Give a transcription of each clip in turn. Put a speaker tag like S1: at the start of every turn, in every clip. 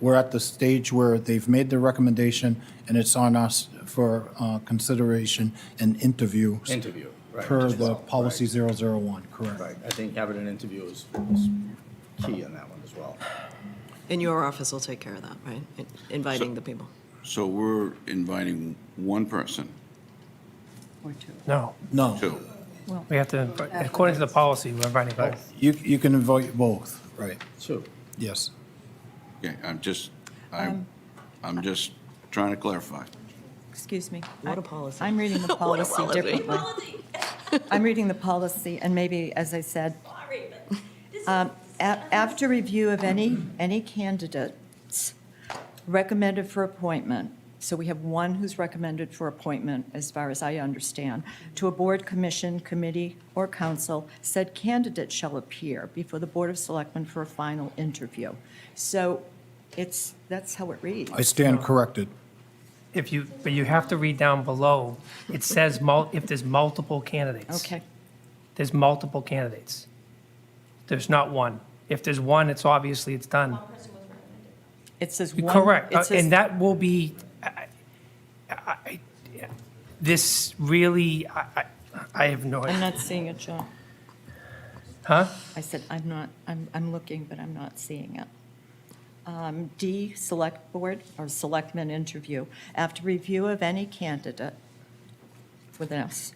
S1: We're at the stage where they've made their recommendation, and it's on us for uh, consideration and interview.
S2: Interview, right.
S1: Per
S2: just-
S1: the
S2: right,
S1: policy 001, correct.
S2: Right, I think having an interview is is key on that one as well.
S3: And your office will take care of that, right? In- Inviting the people.
S4: So we're inviting one person,
S5: Or two.
S6: No,
S1: No,
S4: two.
S6: we have to, according to the policy, we're inviting both.
S1: you, you can invite both, right,
S2: Two.
S1: yes.
S4: Okay, I'm just, I'm, I'm just trying to clarify.
S5: Excuse me.
S3: What a
S5: I-
S3: policy.
S5: I'm reading the
S3: What a
S5: policy
S3: policy.
S5: differently. I'm reading the policy, and maybe, as I said,
S7: Sorry, but this
S5: Um, a- After review of any, any candidates recommended for appointment, so we have one who's recommended for appointment, as far as I understand, to a board, commission, committee, or council, said candidate shall appear before the Board of Selectmen for a final interview. So it's, that's how it reads.
S1: I stand corrected.
S6: If you, but you have to read down below, it says mul, if there's multiple candidates.
S5: Okay,
S6: There's multiple candidates. There's not one. If there's one, it's obviously it's done.
S5: it says one.
S6: Correct,
S5: it
S6: uh,
S5: says-
S6: and that will be, I- I- I- yeah. this really, I, I- I have no,
S5: I'm not seeing it, John.
S6: huh?
S5: I said, I'm not, I'm, I'm looking, but I'm not seeing it. Um, D, Select Board or Selectmen Interview. After review of any candidate with an S,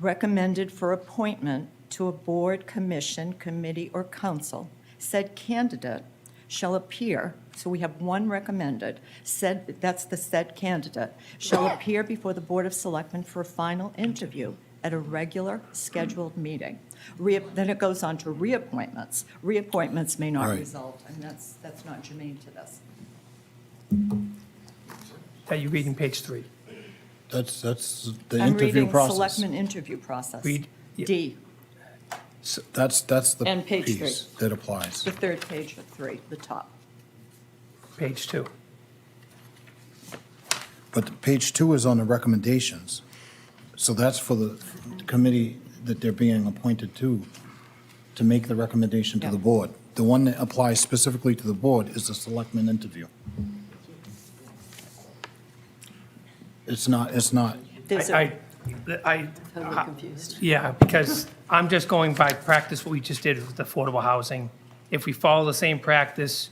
S5: recommended for appointment to a board, commission, committee, or council, said candidate shall appear, so we have one recommended, said, that's the said candidate, shall appear before the Board of Selectmen for a final interview at a regular scheduled meeting. Reap- Then it goes on to reappointments. Reappointments may not
S1: Right.
S5: result, and that's, that's not germane to this.
S6: That you're reading page three.
S1: That's, that's the
S5: I'm
S1: interview
S5: reading
S1: process.
S5: Selectmen interview process.
S6: Read- yeah.
S5: D,
S1: S- That's, that's the
S5: And page three.
S1: piece that applies.
S5: the third page of three, the top.
S6: Page two.
S1: But page two is on the recommendations. So that's for the committee that they're being appointed to, to make the recommendation to the
S5: Yeah.
S1: board. The one that applies specifically to the board is the selectman interview. It's not, it's not,
S5: There's a-
S6: I, I, I-
S3: Totally confused.
S6: yeah, because I'm just going by practice, what we just did with affordable housing. If we follow the same practice,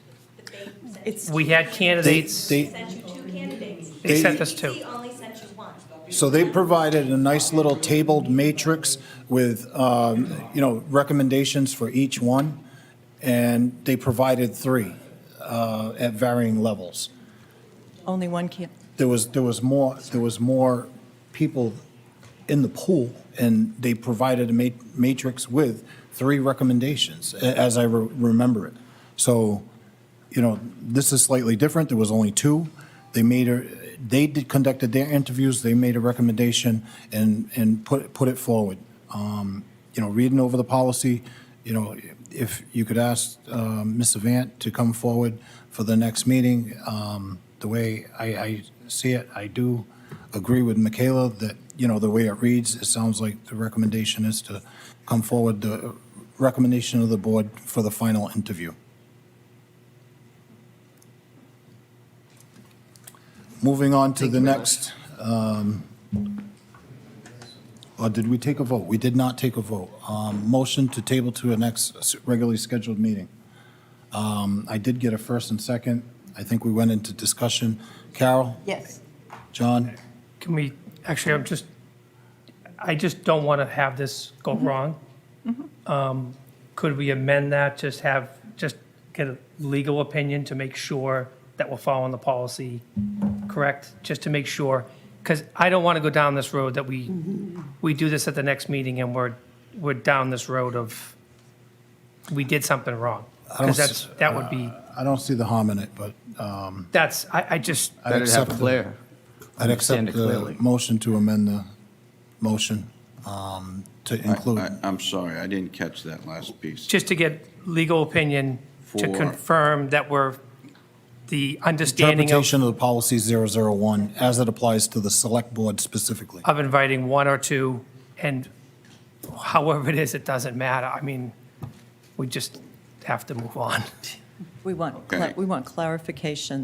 S5: It's,
S6: we had
S1: they,
S6: candidates, they
S1: they,
S7: sent you two candidates.
S1: they-
S6: sent us two.
S7: EC only sent you one.
S1: so they provided a nice little tabled matrix with, um, you know, recommendations for each one, and they provided three uh, at varying levels.
S5: only one can,
S1: there was, there was more, there was more people in the pool, and they provided a ma- matrix with three recommendations, a- as I re- remember it. So, you know, this is slightly different, there was only two. They made a, they did, conducted their interviews, they made a recommendation and, and put, put it forward. Um, You know, reading over the policy, you know, if you could ask um, Ms. Avant to come forward for the next meeting, um, the way I, I see it, I do agree with Michaela that, you know, the way it reads, it sounds like the recommendation is to come forward, the recommendation of the board for the final interview. Moving on to the next, um, or did we take a vote? We did not take a vote. Um, Motion to table to a next s- regularly scheduled meeting. Um, I did get a first and second. I think we went into discussion. Carol?
S5: yes.
S1: John?
S6: Can we, actually, I'm just, I just don't want to have this go wrong. Um, Could we amend that, just have, just get a legal opinion to make sure that we're following the policy correct? Just to make sure, because I don't want to go down this road that we, we do this at the next meeting and we're, we're down this road of, we did something wrong.
S1: don't
S6: Because that's,
S1: s- uh,
S6: that would be,
S1: I don't see the harm in it, but um,
S6: that's, I, I just,
S1: I'd accept, the- I'd accept
S2: understand it
S1: the
S2: clearly.
S1: motion to amend the motion um, to
S4: I-
S1: include,
S4: I'm sorry, I didn't catch that last piece.
S6: just to get legal opinion to
S4: For-
S6: confirm that we're, the understanding of,
S1: interpretation of the policy 001 as it applies to the select board specifically.
S6: of inviting one or two, and however it is, it doesn't matter. I mean, we just have to move on.
S5: We want,
S4: Okay.
S5: cla- we want clarification